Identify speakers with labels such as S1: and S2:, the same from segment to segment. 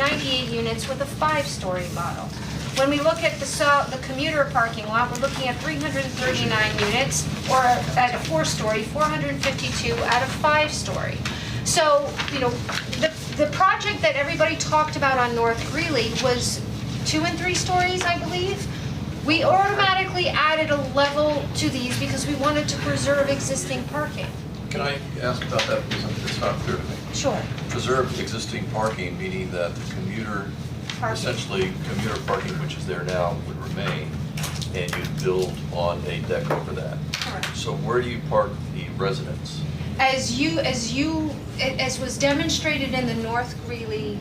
S1: 98 units with a five-story model. When we look at the so- the commuter parking lot, we're looking at 339 units, or at a four-story, 452 out of five-story. So, you know, the the project that everybody talked about on North Greeley was two and three stories, I believe. We automatically added a level to these because we wanted to preserve existing parking.
S2: Can I ask about that, because it's not clear to me.
S1: Sure.
S2: Preserve existing parking, meaning that the commuter,
S1: Parking.
S2: essentially commuter parking, which is there now, would remain, and you'd build on a deck over that.
S1: Correct.
S2: So where do you park the residents?
S1: As you, as you, as was demonstrated in the North Greeley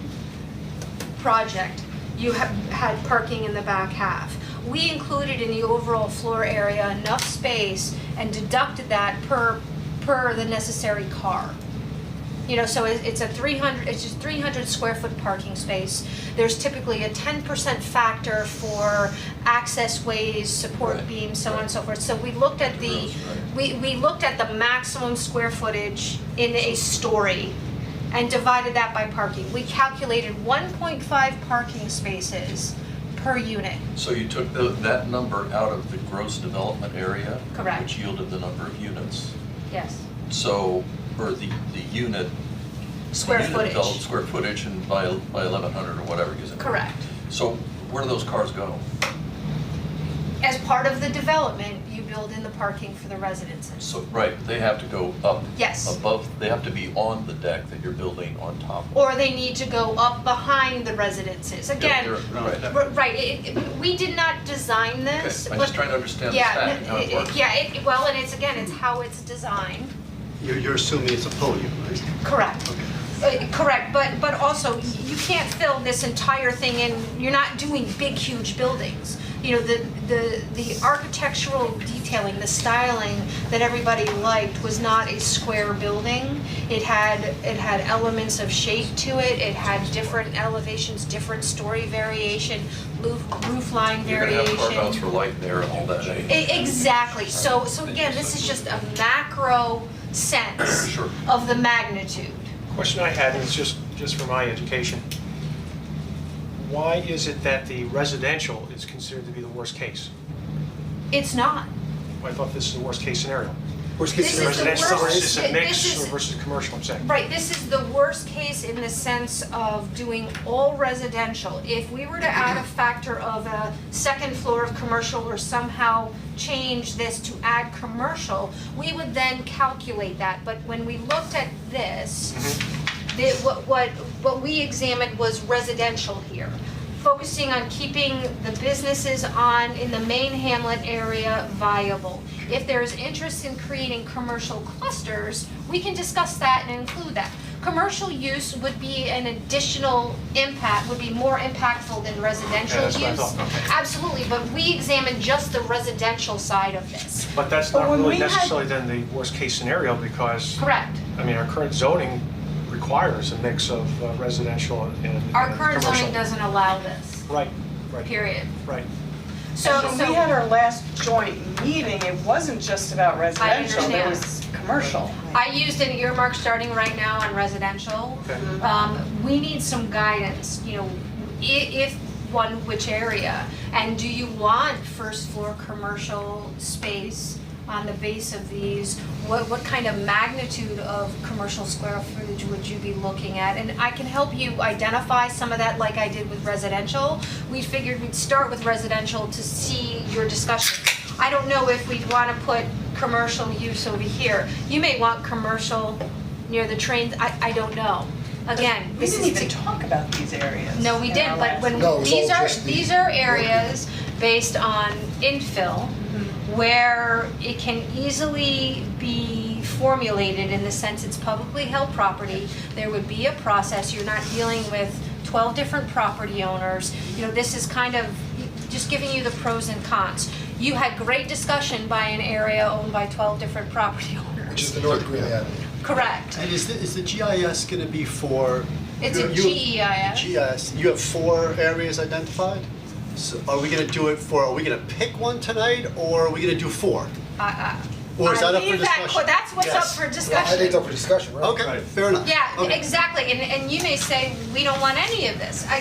S1: project, you ha had parking in the back half. We included in the overall floor area enough space and deducted that per, per the necessary car. You know, so it- it's a three hundred, it's just three hundred square foot parking space. There's typically a ten percent factor for access ways, support
S2: Right,
S1: beams, so on and
S2: right.
S1: so forth. So we looked at the,
S2: Gross, right.
S1: we, we looked at the maximum square footage in a story and divided that by parking. We calculated one point five parking spaces per unit.
S2: So you took tho- that number out of the gross development area?
S1: Correct.
S2: Which yielded the number of units.
S1: Yes.
S2: So, or the, the unit.
S1: Square
S2: unit
S1: footage.
S2: developed Square footage and by, by 1,100 or whatever it is.
S1: Correct.
S2: So where do those cars go?
S1: As part of the development, you build in the parking for the residences.
S2: So, right, they have to go up.
S1: Yes.
S2: Above, they have to be on the deck that you're building on top of.
S1: Or they need to go up behind the residences. Again,
S2: They're- they're- Right.
S1: r- right, it, it- we did not design this,
S2: Okay, I'm
S1: but-
S2: just trying to understand the
S1: Yeah,
S2: stack and how
S1: n-
S2: it works.
S1: Yeah, it, well, and it's, again, it's how it's designed.
S3: You're, you're assuming it's a podium, right?
S1: Correct. Uh, Correct, but, but also, y- you can't fill this entire thing in, you're not doing big, huge buildings. You know, the, the, the architectural detailing, the styling that everybody liked was not a square building. It had, it had elements of shape to it, it had different elevations, different story variation, roof, roof line
S2: You're
S1: variation.
S2: gonna have carve outs for light and air and all that, eh?
S1: E- Exactly, so, so again, this is just a macro sense
S2: Sure.
S1: of the magnitude.
S4: Question I had is just, just for my education. Why is it that the residential is considered to be the worst case?
S1: It's not.
S4: I thought this is the worst case scenario.
S3: Worst
S1: This is
S3: case
S1: the
S3: scenario.
S4: Residential
S1: worst-
S4: versus a
S1: this
S4: mix
S1: is-
S4: versus commercial, I'm saying.
S1: Right, this is the worst case in the sense of doing all residential. If we were to add a factor of a second floor of commercial or somehow change this to add commercial, we would then calculate that. But when we looked at this, the, what, what, what we examined was residential here. Focusing on keeping the businesses on, in the main hamlet area viable. If there is interest in creating commercial clusters, we can discuss that and include that. Commercial use would be an additional impact, would be more impactful than residential
S4: Yeah,
S1: use.
S4: that's what I thought, okay.
S1: Absolutely, but we examined just the residential side of this.
S4: But that's
S1: But
S4: not
S1: when
S4: really
S1: we had-
S4: necessarily then the worst case scenario because,
S1: Correct.
S4: I mean, our current zoning requires a mix of uh, residential and and commercial.
S1: Our current zoning doesn't allow this,
S4: Right, right,
S1: period.
S4: right.
S1: So,
S5: When
S1: so-
S5: we had our last joint meeting, it wasn't just about residential,
S1: understand.
S5: there was commercial.
S1: I used an earmark starting right now on residential.
S4: Okay.
S1: Um, we need some guidance, you know, i- if one, which area? And do you want first floor commercial space on the base of these? What, what kind of magnitude of commercial square footage would you be looking at? And I can help you identify some of that like I did with residential. We figured we'd start with residential to see your discussion. I don't know if we'd wanna put commercial use over here. You may want commercial near the trains, I, I don't know. Again,
S5: We
S1: this is
S5: didn't even
S1: the.
S5: talk about these areas.
S1: No, we
S5: in
S1: did,
S5: our
S1: but
S5: last-
S1: when,
S6: No, it was
S1: these
S6: all
S1: are,
S6: just the-
S1: these are areas based on infill where it can easily be formulated in the sense it's publicly held property. There would be a process, you're not dealing with twelve different property owners. You know, this is kind of just giving you the pros and cons. You had great discussion by an area owned by twelve different property
S6: Which is
S1: owners.
S6: the North Greeley Avenue.
S1: Correct.
S3: And is the, is the GIS gonna be for?
S1: It's a
S3: you- you-
S1: GEIS.
S3: GIS, you have four areas identified? So are we gonna do it for, are we gonna pick one tonight, or are we gonna do four?
S1: I,
S3: Or is
S1: I
S3: that up for
S1: leave that
S3: discussion?
S1: que- that's what's up
S3: Yes.
S1: for
S6: I think it's
S1: discussion.
S6: up for discussion, right?
S3: Okay, fair enough.
S1: Yeah,
S3: Okay.
S1: exactly, and, and you may say, we don't want any of this. I-